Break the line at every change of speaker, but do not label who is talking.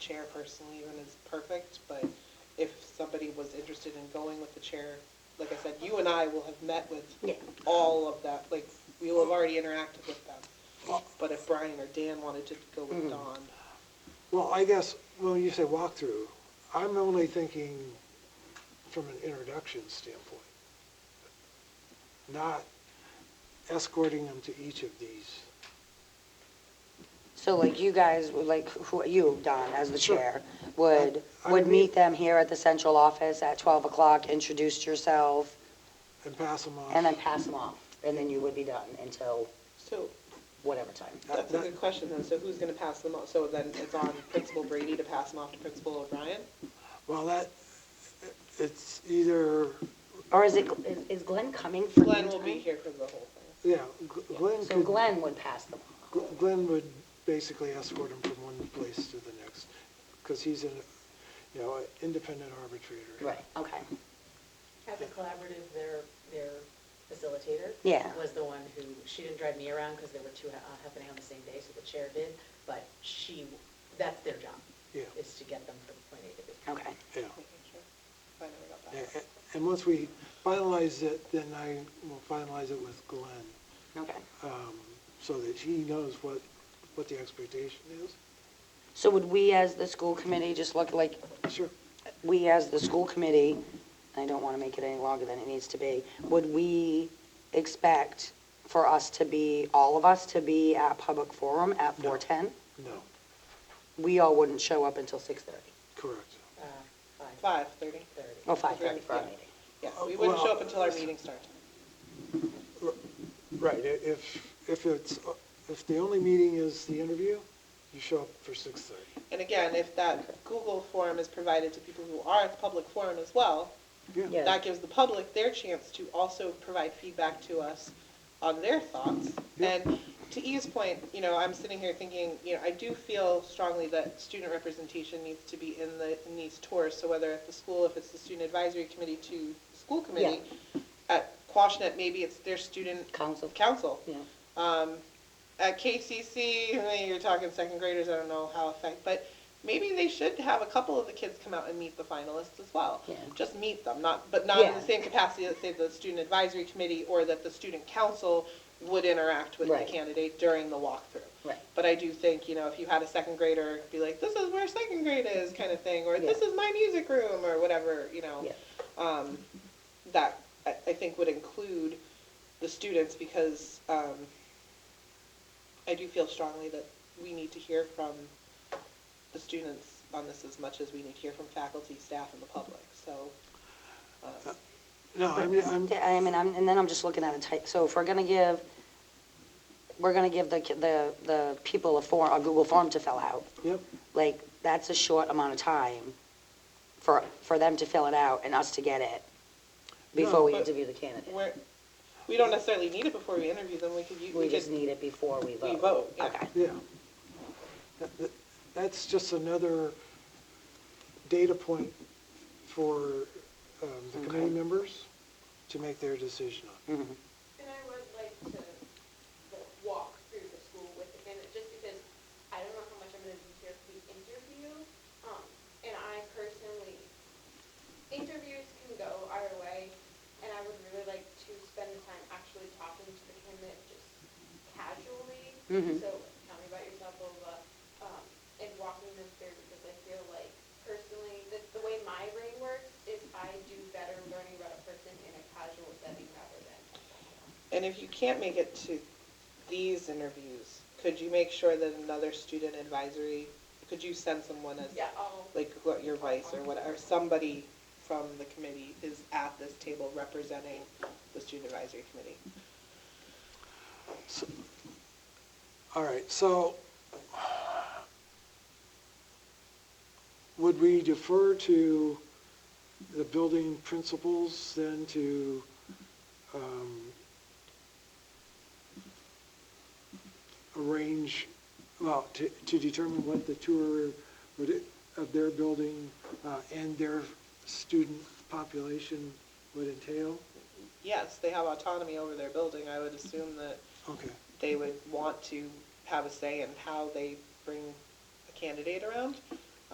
chair personally even is perfect, but if somebody was interested in going with the chair, like I said, you and I will have met with
Yeah.
all of that, like, we will have already interacted with them. But if Brian or Dan wanted to go with Don,
Well, I guess, when you say walkthrough, I'm only thinking from an introduction standpoint, not escorting them to each of these.
So like you guys, would like who, you, Don, as the
Sure.
chair, would,
I- I
would
mean-
meet them here at the central office at 12 o'clock, introduce yourself,
And pass them off.
and then pass them off, and then you would be done until
so,
whatever time.
that's a good question then, so who's gonna pass them off? So then it's on Principal Brady to pass them off to Principal O'Brien?
Well, that, it's either,
Or is it, is- is Glenn coming for?
Glenn
noon
will be
time?
here for the whole thing.
yeah, Gl- Glenn
So
could,
Glenn would pass them off.
Gl- Glenn would basically escort them from one place to the next, because he's an, you know, an independent arbitrator.
Okay,
At the collaborative, their, their facilitator.
Yeah.
Was the one who, she didn't drive me around because there were two ha- happening on the same day, so the chair did, but she, that's their job.
Yeah.
Is to get them from point A to B.
okay.
Yeah.
Making sure. I never got
Yeah,
that.
a- And once we finalize it, then I will finalize it with Glenn,
Okay.
um, so that he knows what, what the expectation is.
So would we as the school committee just look like,
Sure.
we as the school committee, I don't want to make it any longer than it needs to be, would we expect for us to be, all of us to be at public forum at 4:10?
No,
We all wouldn't show up until 6:30,
correct.
Uh, Five
Five thirty?
thirty.
or 5:30 for our meeting.
Yeah, we wouldn't show up until our meeting starts.
Right, i- if, if it's, uh, if the only meeting is the interview, you show up for six thirty.
And again, if that Google form is provided to people who are at the public forum as well,
Yeah.
that gives the public their chance to also provide feedback to us on their thoughts. And to Eve's point, you know, I'm sitting here thinking, you know, I do feel strongly that student representation needs to be in the, in these tours. So whether at the school, if it's the student advisory committee to the school committee, at Quashnet, maybe it's their student
Council.
council.
Yeah.
at KCC, I mean, you're talking second graders, I don't know how affect, but maybe they should have a couple of the kids come out and meet the finalists as well.
Yeah.
Just meet them, not, but not in the
Yeah.
same capacity that say the student advisory committee or that the student council would interact with the
Right.
candidate during the walkthrough.
Right.
But I do think, you know, if you had a second grader, be like, this is where second grade is kind of thing, or
Yeah.
this is my music room, or whatever, you know
Yeah.
um, that I, I think would include the students because um, I do feel strongly that we need to hear from the students on this as much as we need to hear from faculty, staff, and the public. So, um,
No, I'm, I'm,
Yeah, I mean, I'm, and then I'm just looking at a type, so if we're gonna give, we're gonna give the, ki- the, the people a form, a Google form to fill out,
yep,
like, that's a short amount of time for, for them to fill it out and us to get it before
No,
we
but-
interview the candidate.
we're, we don't necessarily need it before we interview them. We could, u- we
We just
could,
need it before we vote.
we vote, yeah.
Okay,
yeah. That- that- That's just another data point for um, the committee members to make their decision on.
And I would like to like, walk through the school with the candidate, just because I don't know how much I'm gonna be here for the interview. Um, and I personally, interviews can go our way, and I would really like to spend the time actually talking to the candidate just casually.
Mhm.
So tell me about yourself, blah, blah, blah, um, and walking them through, because I feel like personally, the, the way my brain works is I do better learning about a person in a casual setting rather than
And if you can't make it to these interviews, could you make sure that another student advisory, could you send someone as
Yeah, I'll,
like what your vice or whatever, somebody from the committee is at this table representing the student advisory committee.
All right, so would we defer to the building principals then to um, arrange, well, to to determine what the tour would- of their building uh, and their student population would entail?
Yes, they have autonomy over their building. I would assume that
Okay,
they would want to have a say in how they bring a candidate around.